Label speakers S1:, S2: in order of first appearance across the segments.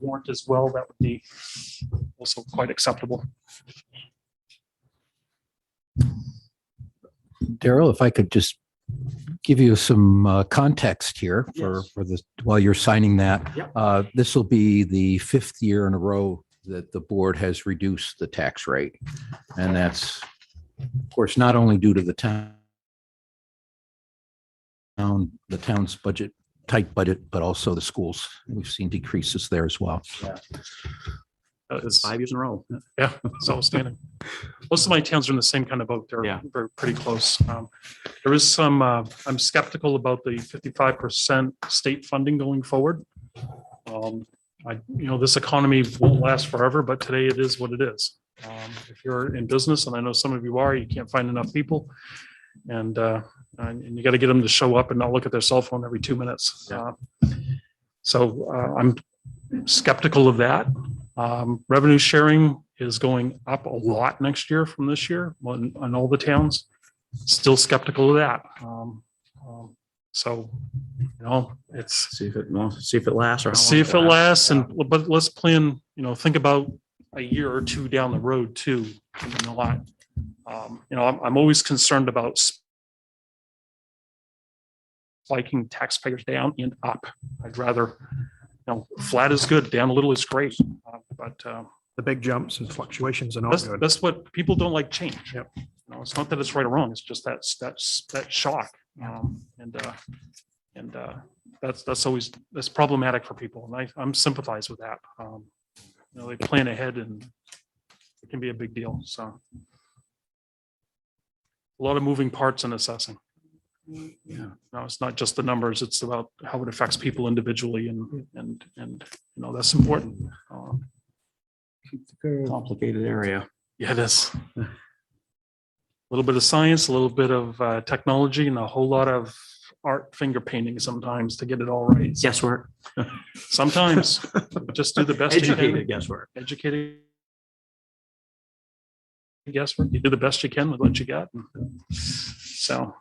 S1: warrant as well, that would be also quite acceptable.
S2: Daryl, if I could just give you some uh, context here for,
S1: Yes.
S2: for the, while you're signing that.
S1: Yep.
S2: Uh, This will be the fifth year in a row that the board has reduced the tax rate. And that's, of course, not only due to the town, town, the town's budget, tight budget, but also the schools. We've seen decreases there as well.
S1: That is-
S3: Five years in a row.
S1: Yeah, it's outstanding. Most of my towns are in the same kind of boat. They're,
S3: Yeah.
S1: they're pretty close. Um, There is some, uh, I'm skeptical about the fifty-five percent state funding going forward. Um, I, you know, this economy won't last forever, but today it is what it is. Um, If you're in business, and I know some of you are, you can't find enough people. And, uh, and and you got to get them to show up and not look at their cell phone every two minutes.
S3: Yeah.
S1: Uh, So uh, I'm skeptical of that. Um, revenue sharing is going up a lot next year from this year on, on all the towns. Still skeptical of that. Um, um, so, you know, it's,
S3: See if it, well, see if it lasts or. how long
S1: see if it lasts
S3: Yeah.
S1: and, but let's plan, you know, think about a year or two down the road too. a lot. Um, you know, I'm, I'm always concerned about spiking taxpayers down and up. I'd rather, you know, flat is good, down a little is great. Uh, But, uh,
S4: the big jumps and fluctuations and all
S1: That's,
S4: good.
S1: that's what people don't like change.
S4: Yep.
S1: You know, it's not that it's right or wrong. It's just that's, that's, that shock. Um, and, uh, and, uh, that's, that's always, that's problematic for people. And I, I'm sympathize with that. Um, you know, they plan ahead and it can be a big deal. So. A lot of moving parts in assessing.
S3: Yeah.
S1: No, it's not just the numbers. It's about how it affects people individually and, and, and, you know, that's important. Um,
S3: Complicated area.
S1: Yeah, it is. A little bit of science, a little bit of uh, technology, and a whole lot of art finger painting sometimes to get it all right.
S3: Guesswork.
S1: Sometimes, just do the best you can.
S3: Educated guesswork.
S1: Educated. Guesswork, you do the best you can with what you got. So,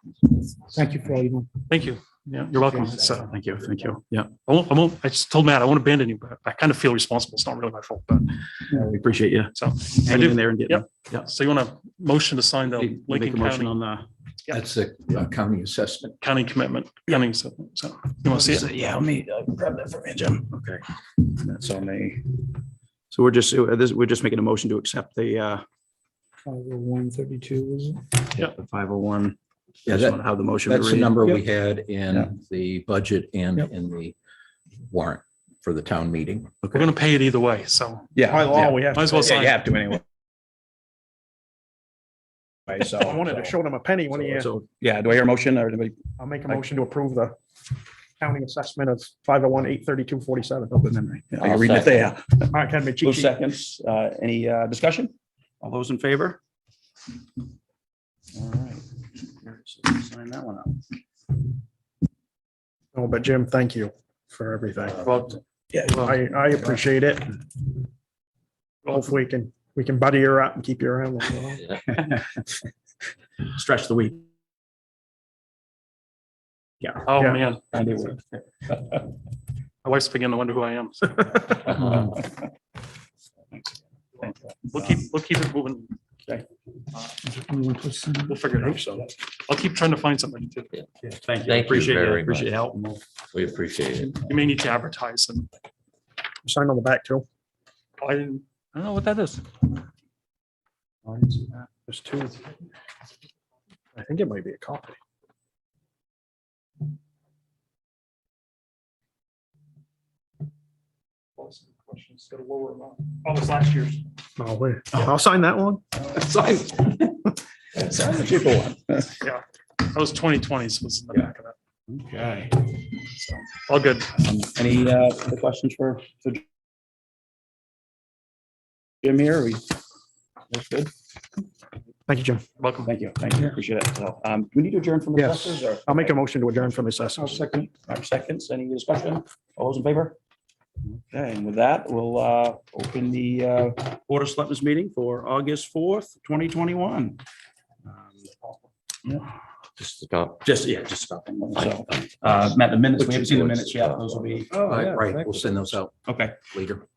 S5: Thank you for all you do.
S1: thank you. Yeah, you're welcome. So,
S3: Thank you, thank you. Yeah,
S1: I won't, I won't, I just told Matt, I won't abandon you, but I kind of feel responsible. It's not really my fault, but
S3: we appreciate you.
S1: So,
S3: Hanging
S1: do-
S3: in there and getting.
S1: so you want to motion to sign the
S3: Make- Make a
S1: Lincoln
S3: motion
S1: County,
S3: on the.
S1: Yeah.
S2: That's the uh, county assessment.
S1: county commitment. County, so, so, you want to see it?
S3: Yeah, let me uh, grab that from you, Jim. Okay. That's on me. So we're just, uh, this, we're just making a motion to accept the, uh,
S5: Five oh one thirty-two, was it?
S3: the five oh one.
S2: Yeah,
S3: Just
S2: that-
S3: want how the motion. would
S2: That's the
S3: read.
S2: number we
S5: Yep.
S2: had in the budget and
S5: Yep.
S2: in the warrant for the town meeting.
S1: We're gonna pay it either way, so
S4: By law, oh we have.
S1: might as well sign. it.
S4: to anyway. I wanted to show them a penny when he,
S3: So, yeah, do I hear a motion or anybody?
S4: I'll make a motion to approve the county assessment of five oh one, eight thirty-two, forty-seven.
S3: Open memory. Yeah, I
S2: I'll
S3: can read it
S2: second.
S3: there.
S4: Mark had me
S3: Two
S4: cheat sheet.
S3: seconds. Uh, Any uh, discussion? All those in favor? All right. So we'll Sign that one up.
S4: Oh, but Jim, thank you for everything.
S1: Uh, Well, well,
S4: I, I appreciate it. Hopefully we can, we can buddy her up and keep you around. a little while.
S3: Stretch the week.
S1: Oh,
S4: Yeah.
S1: man, my wife's beginning to wonder who I am. So We'll keep, we'll keep it moving.
S3: Okay.
S1: Uh,
S5: We went to some-
S1: We'll figure it out. So I'll keep trying to find somebody too.
S3: Thank you.
S6: Thank you
S3: Appreciate it.
S6: very
S3: Appreciate
S6: much.
S3: your help. and we'll-
S6: We appreciate it.
S1: You may need to advertise and
S4: Sign on the back too.
S1: I didn't, I don't know what that is.
S4: There's two. I think it might be a copy.
S1: It's got a lower amount. Oh, it's last year's.
S4: No, Oh, wait. I'll sign that one.
S3: Sign sign the cheaper one.
S1: That was twenty twenties was in the back of that.
S3: Okay.
S1: All good.
S3: Um, Any uh, other questions for for Jim here? We, that's good.
S4: Thank you, Jim.
S1: Welcome.
S3: Thank you. Thank you. Appreciate it. So, um, do we need to adjourn from
S4: Yes.
S3: assessors or?
S4: I'll make a motion to adjourn from assessors.
S3: second. Our seconds. Any discussion? All those in favor? Okay, and with that, we'll uh, open the uh, Board of Selectmen's meeting for August fourth, twenty twenty-one.
S6: just about.
S3: Um, Just, yeah, just about. So,
S5: Oh,
S2: Oh,
S3: uh, Matt, the minutes, we haven't seen the minutes yet. Those will be.
S2: Right, we'll send those out
S3: Okay.
S2: later.